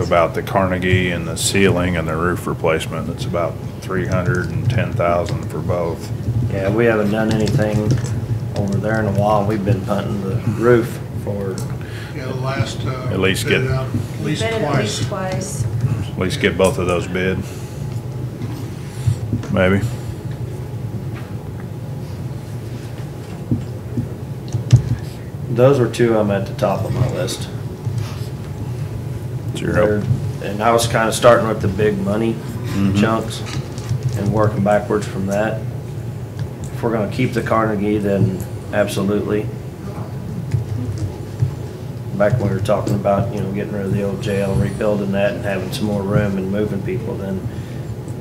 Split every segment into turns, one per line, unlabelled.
about the Carnegie and the ceiling and the roof replacement. It's about three hundred and ten thousand for both.
Yeah, we haven't done anything over there in a while. We've been punting the roof for,
Yeah, the last, uh.
At least
bid
get-
it out At least
Bid it at least
twice.
twice.
At least get both of those bid. Maybe.
those were two of them at the top of my list.
It's your help.
They're- And I was kinda starting with the big money
Mhm.
chunks and working backwards from that. If we're gonna keep the Carnegie, then absolutely. Back when we were talking about, you know, getting rid of the old jail, rebuilding that and having some more room and moving people, then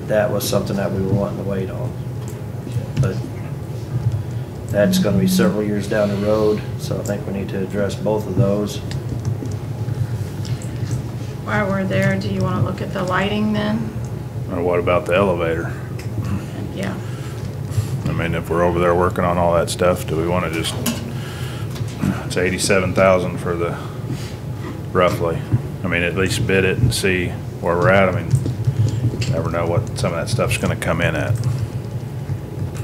that was something that we were wanting to wait on. But that's gonna be several years down the road, so I think we need to address both of those.
While we're there, do you want to look at the lighting then?
Or what about the elevator?
Yeah.
I mean, if we're over there working on all that stuff, do we wanna just, it's eighty-seven thousand for the, roughly. I mean, at least bid it and see where we're at. I mean, never know what some of that stuff's gonna come in at.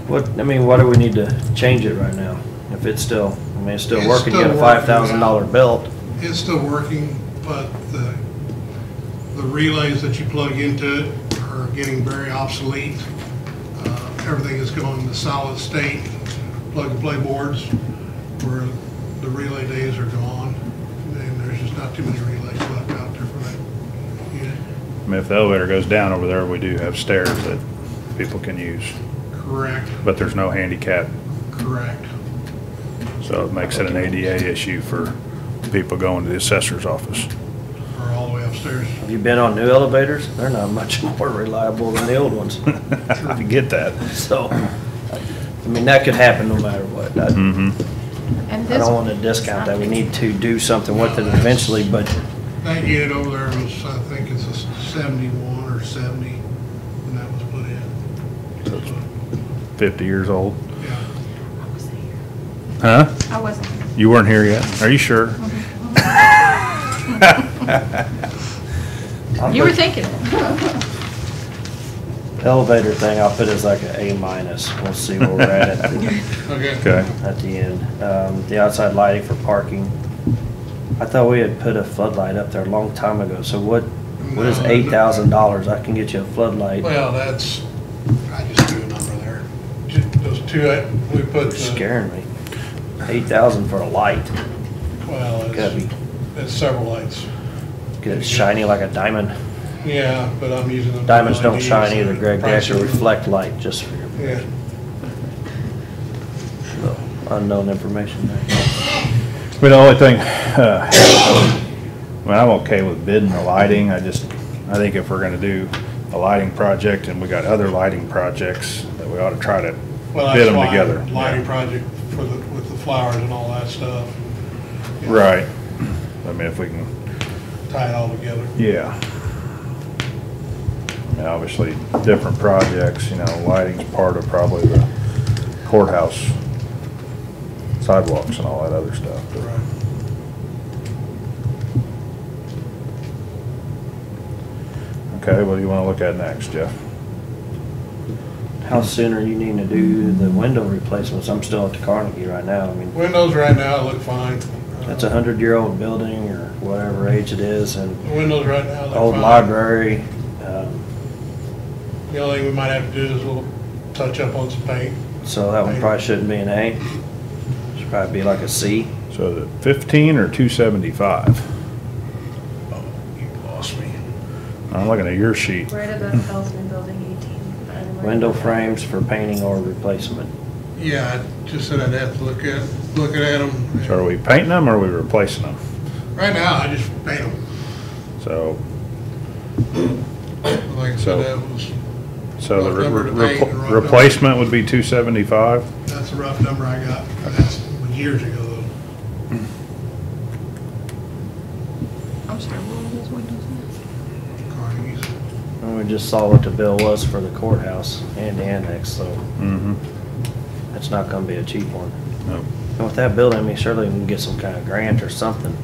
What, I mean, why do we need to change it right now? If it's still, I mean, it's still
It's
working, you got a
still working.
five thousand dollar belt.
It's still working, but the, the relays that you plug into it are getting very obsolete. Uh, Everything is going to solid state, plug and play boards, where the relay days are gone. And there's just not too many relays left out there for that unit.
I mean, if the elevator goes down over there, we do have stairs that people can use,
Correct,
but there's no handicap,
correct.
so it makes it an ADA issue for people going to the assessor's office.
Or all the way upstairs.
Have you been on new elevators? They're not much more reliable than the old ones.
I get that.
So, I mean, that could happen no matter what. I
hmm
And
I
this,
don't want to discount that. We need to do something with it eventually, but
That unit over there was, I think it's a seventy-one or seventy when that was put in. So,
Fifty years old.
Yeah,
Huh?
I wasn't, Mm-hmm.
You weren't here yet? Are you sure?
I'll
you were
put
thinking.
elevator thing, I'll put as like an A minus. We'll see where we're at at the
okay.
Okay.
at the end. Um, the outside lighting for parking. I thought we had put a floodlight up there a long time ago, so what, what is
No.
eight thousand dollars? I can get you a floodlight.
Well, that's, I just threw a number there. Ju- Those two, uh, we put,
You're
the-
scaring me. Eight thousand for a light.
well,
Gotta
it's,
be,
it's several lights.
get it shiny like a diamond.
Yeah, but I'm using them. E
Diamonds don't
LEDs
shine
that
either,
are
Greg. They actually
pricey.
reflect light, just for your
Yeah,
little unknown information there.
But the only thing, uh, I mean, I'm okay with bidding the lighting, I just, I think if we're gonna do a lighting project and we got other lighting projects, that we ought to try to
well,
bid
that's
them
why,
together.
lighting project for the, with the flowers and all that stuff. you know,
Right. I mean, if we can,
Tie it all together.
yeah. I mean, obviously, different projects, you know, lighting's part of probably the courthouse sidewalks and all that other stuff. but-
Right.
Okay, what do you wanna look at next, Jeff?
How soon are you needing to do the window replacements? I'm still at the Carnegie right now. I mean,
Windows right now look fine.
that's a hundred-year-old building or whatever age it is, and
The Windows right now look fine.
old library. um,
The only thing we might have to do is a little touch up on some paint.
So that one probably shouldn't be an A. Should probably be like a C.
So is it fifteen or two seventy-five?
Oh, you lost me.
I'm looking at your sheet.
Right above Feldman Building 18. by the way.
Window frames for painting or replacement.
Yeah, I just said I'd have to look at, look at them.
So are we painting them or are we replacing them?
Right now, I just paint them.
So,
Like I
So-
said, that was,
so the
Rough number
re-
to paint and rough
repl-
number.
replacement would be two seventy-five?
that's a rough number I got. That's years ago though.
I'm sorry, what were those windows?
Carnegie's.
And we just saw what the bill was for the courthouse and the annex, so
Mm-hmm.
it's not gonna be a cheap one.
No.
And with that building, I mean, surely we can get some kind of grant or something.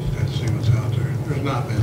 Just gotta see what's out there. There's have not been.